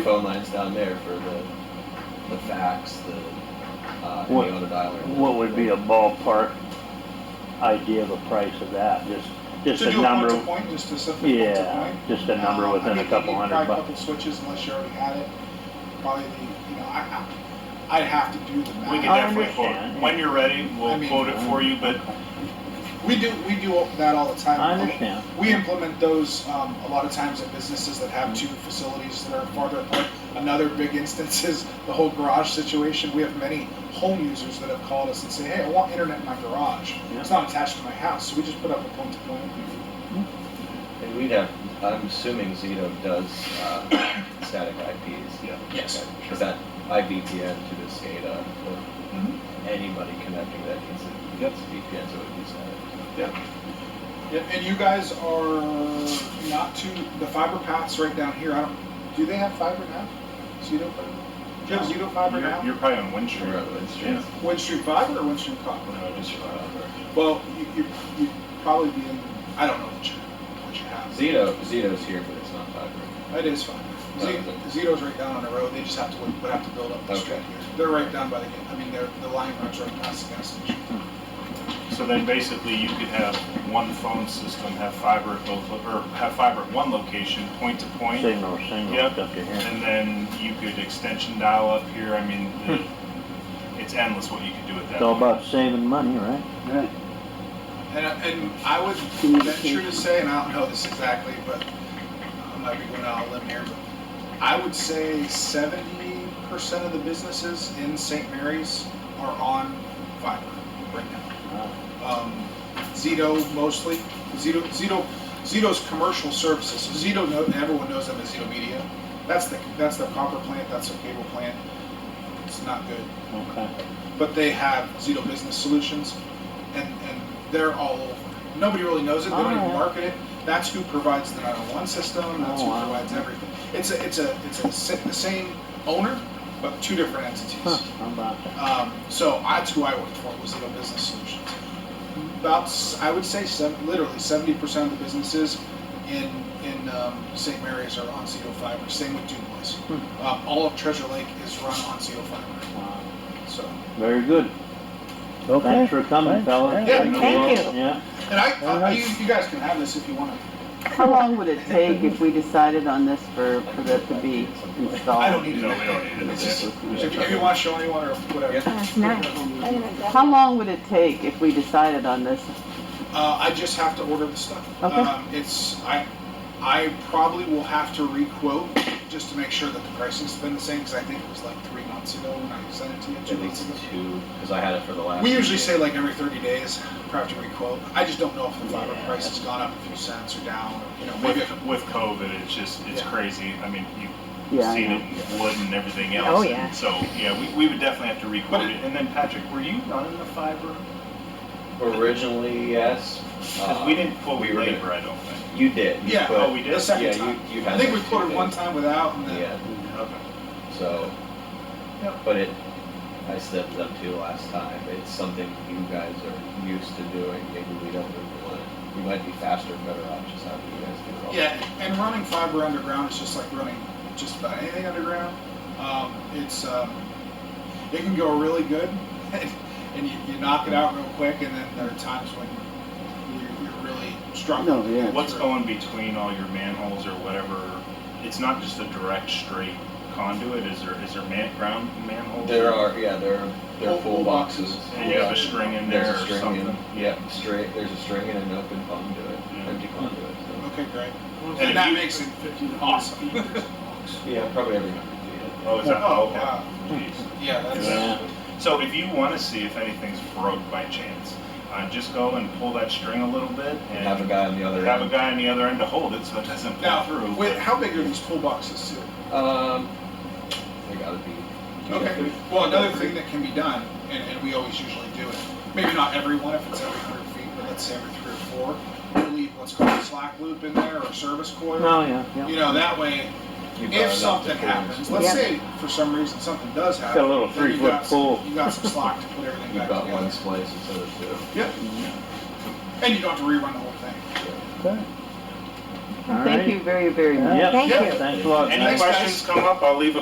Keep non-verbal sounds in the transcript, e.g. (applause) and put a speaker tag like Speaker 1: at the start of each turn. Speaker 1: phone lines down there for the, the fax, the, uh, and
Speaker 2: What-
Speaker 1: the auto dialer.
Speaker 2: What would be a ballpark idea of a price of that? Just, just
Speaker 3: To
Speaker 2: a
Speaker 3: do a point
Speaker 2: number,
Speaker 3: to point, just to set the point to
Speaker 2: yeah,
Speaker 3: point.
Speaker 2: just a number
Speaker 3: Uh, I
Speaker 2: within
Speaker 3: mean,
Speaker 2: a
Speaker 3: you
Speaker 2: couple
Speaker 3: need
Speaker 2: hundred
Speaker 3: Probably a
Speaker 2: bucks.
Speaker 3: couple switches unless you already had it. Probably, the- you know, I, I- I'd have to do the math.
Speaker 4: We can
Speaker 2: I
Speaker 4: definitely quote,
Speaker 2: understand,
Speaker 4: it.
Speaker 2: yeah.
Speaker 4: when you're ready,
Speaker 3: I
Speaker 4: we'll
Speaker 3: mean-
Speaker 4: quote it for you, but
Speaker 3: We do, we do that all the time.
Speaker 2: I understand.
Speaker 3: We implement those um, a lot of times at businesses that have two facilities that are farther apart. Another big (laughs) instance is the whole garage situation. We have many home users that have called us and say, hey, I want internet in my garage.
Speaker 2: Yeah.
Speaker 3: It's not attached to my house, so we just put up a point to point.
Speaker 1: And we'd have, I'm assuming Zito does, uh, static IPs. Yeah.
Speaker 3: Yes.
Speaker 1: Is that IVPN to the SCADA, but
Speaker 3: Mhm.
Speaker 1: anybody connecting that needs a, gets VPN, so it would be static.
Speaker 3: Yeah, And you guys are not too, the fiber paths right down here, I don't, do they have fiber now? Zito fiber? Do you have Zito fiber
Speaker 4: you're,
Speaker 3: now?
Speaker 4: you're probably on Windstream.
Speaker 1: Sure, it's true.
Speaker 3: Windstream fiber or Windstream copper?
Speaker 4: No, just your fiber.
Speaker 3: Well, you, you, you'd probably be in, I don't know what you, what you have.
Speaker 1: Zito, Zito's here, but it's not fiber.
Speaker 3: That is fine. Z- Zito's right down on the road, they just have to, would would have to build up the street
Speaker 1: Okay.
Speaker 3: here. They're right down by the, I mean, they're, the line runs right past the gas station.
Speaker 4: So then basically you could have one phone system, have fiber at both, lo- or have fiber at one location, point to point.
Speaker 2: Signal, signal
Speaker 4: Yep.
Speaker 2: stuff to here.
Speaker 4: And uh, then you could extension dial up here, I mean, the- it's endless what you could do with that.
Speaker 2: It's all about saving money, right?
Speaker 5: Right.
Speaker 3: And, and I would venture to say, and I don't know this exactly, but I might be going out on a limb here, but I would say seventy percent of the businesses in St. Mary's are on fiber right
Speaker 2: Uh,
Speaker 3: now. Um, Zito mostly, Zito, Zito, Zito's commercial services, so Zito, know- everyone knows them as Zito Media. That's the, that's the copper plant, that's the cable plant. It's not good
Speaker 2: Okay.
Speaker 3: but they have Zito Business Solutions, and, and they're all over. Nobody really knows it. They don't even
Speaker 2: Alright.
Speaker 3: market it. That's who provides the 901 system. That's
Speaker 2: Oh,
Speaker 3: who
Speaker 2: wow.
Speaker 3: provides everything. It's a it's a it's a si- the same owner, but two different entities.
Speaker 2: Huh, how about that?
Speaker 3: Um, so that's who I worked for was Zito Business Solutions. About s- I would say seven, literally 70 percent of the businesses in in um, St. Mary's are on Zito Fiber. Same with Dubois.
Speaker 2: Hmm.
Speaker 3: Um, all of Treasure Lake is run on Zito Fiber.
Speaker 2: Wow.
Speaker 3: So.
Speaker 2: Uh, Very good.
Speaker 5: Okay.
Speaker 2: Thanks for coming,
Speaker 5: Thanks.
Speaker 2: fellas.
Speaker 3: Yeah,
Speaker 6: thank you.
Speaker 2: Yeah,
Speaker 3: And I,
Speaker 5: All
Speaker 3: I
Speaker 5: right.
Speaker 3: you, you guys can have this if you want to.
Speaker 6: How long would it take if we decided on this for, for that to be
Speaker 3: I don't
Speaker 6: installed?
Speaker 3: need it.
Speaker 4: No, we don't need it.
Speaker 3: It's just- If you, if you want uh, to show anyone or whatever.
Speaker 1: Yeah.
Speaker 7: That's nice. I didn't know
Speaker 6: How long would it take if we decided on this?
Speaker 3: Uh, I just have to order the stuff.
Speaker 6: Okay.
Speaker 3: Um, it's I, I probably will have to requote just to make sure that the pricing's been the same because I think it was like three months ago when I sent it to you. Two
Speaker 1: At
Speaker 3: months
Speaker 1: least
Speaker 3: ago.
Speaker 1: two, because I had it for the last.
Speaker 3: We usually
Speaker 1: meeting.
Speaker 3: say like every 30 days, probably have to requote. I just don't know if the fiber price has gone up a few cents or down. Or, you know, maybe.
Speaker 4: With, with COVID, it's just, it's
Speaker 3: Yeah.
Speaker 4: crazy. I mean, you
Speaker 6: Yeah, I
Speaker 4: seen
Speaker 6: know.
Speaker 4: it in wood and everything
Speaker 7: Oh,
Speaker 4: else.
Speaker 7: yeah.
Speaker 4: And So, yeah, we, we would definitely have to
Speaker 3: But
Speaker 4: record
Speaker 3: it-
Speaker 4: it. And then Patrick, were you running the fiber?
Speaker 1: Originally, yes.
Speaker 4: Because
Speaker 1: Uh,
Speaker 4: we didn't quote
Speaker 1: we were gonna-
Speaker 4: labor, I don't think.
Speaker 1: You did. you
Speaker 3: Yeah,
Speaker 1: put-
Speaker 4: oh, we did?
Speaker 3: The second
Speaker 1: Yeah,
Speaker 3: time.
Speaker 1: you, you had.
Speaker 3: I think
Speaker 1: that
Speaker 3: we
Speaker 1: two
Speaker 3: quoted one
Speaker 1: days.
Speaker 3: time without, and then Mm,
Speaker 1: Yeah,
Speaker 4: Okay.
Speaker 1: so,
Speaker 3: Yep.
Speaker 1: but it, I stepped up to last time, it's something you guys are used to doing, maybe we don't really want it. We might be faster and better off just having you guys do it all.
Speaker 3: Yeah, and running fiber underground is just like running just about anything underground. Um, it's um, it can go really good, (laughs) and you, you knock it out real quick, and then there are times when you're, you're really struggling.
Speaker 5: No, yeah.
Speaker 3: to get
Speaker 4: What's
Speaker 3: through.
Speaker 4: going between all your manholes or whatever? It's not just a direct straight conduit. Is there is there man, ground manholes?
Speaker 1: There are, yeah, there are, there are
Speaker 3: Full- full
Speaker 1: full boxes.
Speaker 3: boxes.
Speaker 4: And you have a string in there
Speaker 1: There's a
Speaker 4: or
Speaker 1: string
Speaker 4: something. Mm.
Speaker 1: in, yeah, straight, there's a string and an open conduit,
Speaker 4: Yeah.
Speaker 1: empty conduit, so.
Speaker 3: Okay, great. And,
Speaker 4: if
Speaker 3: that
Speaker 4: you-
Speaker 3: makes it awesome.
Speaker 1: Yeah, probably every hundred feet.
Speaker 4: Oh, is that?
Speaker 3: Oh,
Speaker 4: okay.
Speaker 3: wow.
Speaker 4: Jeez.
Speaker 3: yeah, that's
Speaker 2: yeah.
Speaker 4: So if you want to see if anything's broke by chance, uh, just go and pull that string a little bit
Speaker 1: And have a
Speaker 4: and
Speaker 1: guy on the other
Speaker 4: have a
Speaker 1: end.
Speaker 4: guy on the other end to hold it so it doesn't pull through.
Speaker 3: now. Wait,
Speaker 4: but-
Speaker 3: how big are these pool boxes too?
Speaker 1: Um, they gotta be.
Speaker 3: Okay. Well, another thing that can be done, and, and we always usually do it, maybe not everyone if it's every hundred feet, but let's say every three or four, we leave what's called a slack loop in there or a service coil.
Speaker 2: Oh, yeah, yeah.
Speaker 3: You know, that way,
Speaker 1: You've got
Speaker 3: if
Speaker 1: enough
Speaker 3: something
Speaker 1: to pull.
Speaker 3: happens, let's
Speaker 6: Yeah.
Speaker 3: say for some reason something does happen.
Speaker 2: Got a little
Speaker 3: then you
Speaker 2: three-foot
Speaker 3: got some-
Speaker 2: pull.
Speaker 3: You got some slack to put everything
Speaker 1: You've
Speaker 3: back
Speaker 1: got one
Speaker 3: together.
Speaker 1: splice instead of two.
Speaker 3: Yep. And you don't have to rerun the whole thing.
Speaker 5: Okay.
Speaker 2: All
Speaker 6: Thank
Speaker 2: right.
Speaker 6: you very, very much.
Speaker 2: Yep.
Speaker 5: Thank you.
Speaker 2: Thanks a lot,
Speaker 4: Any
Speaker 2: guys.
Speaker 4: questions come up, I'll leave a